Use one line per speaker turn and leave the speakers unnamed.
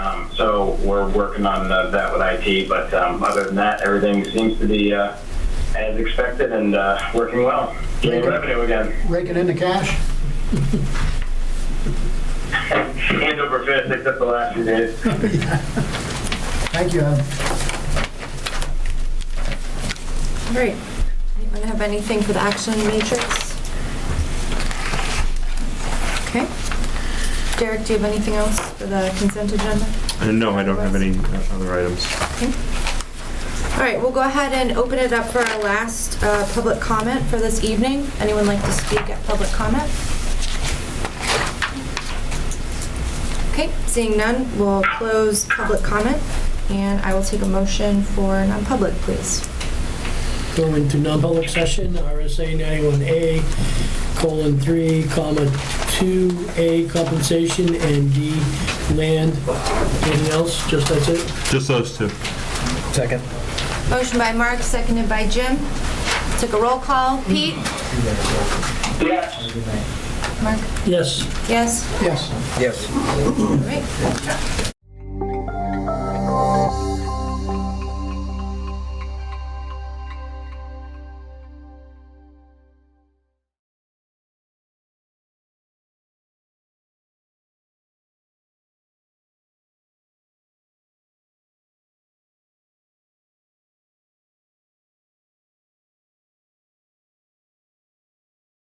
Um, so we're working on uh, that with IT. But um, other than that, everything seems to be uh, as expected and uh, working well. Getting
Very good.
revenue again,
Raking in the cash?
hand over fist, except the last few days.
Thank you, Evan.
All right. Anyone have anything for the action matrix? Okay. Derek, do you have anything else for the consent agenda?
Uh, No, I don't have any uh, other items.
All right, we'll go ahead and open it up for our last uh, public comment for this evening. Anyone like to speak at public comment? Okay, seeing none, we'll close public comment, and I will take a motion for non-public, please.
go into non-public session, RSA 91A, colon, 3, comma, 2A compensation, and D, land. Anything else? Just that's it?
Just those two.
Second.
Motion by Mark, seconded by Jim. Took a roll call. Pete?
Yes.
Mark?
Yes.
Yes?
Yes.
Yes.
All right.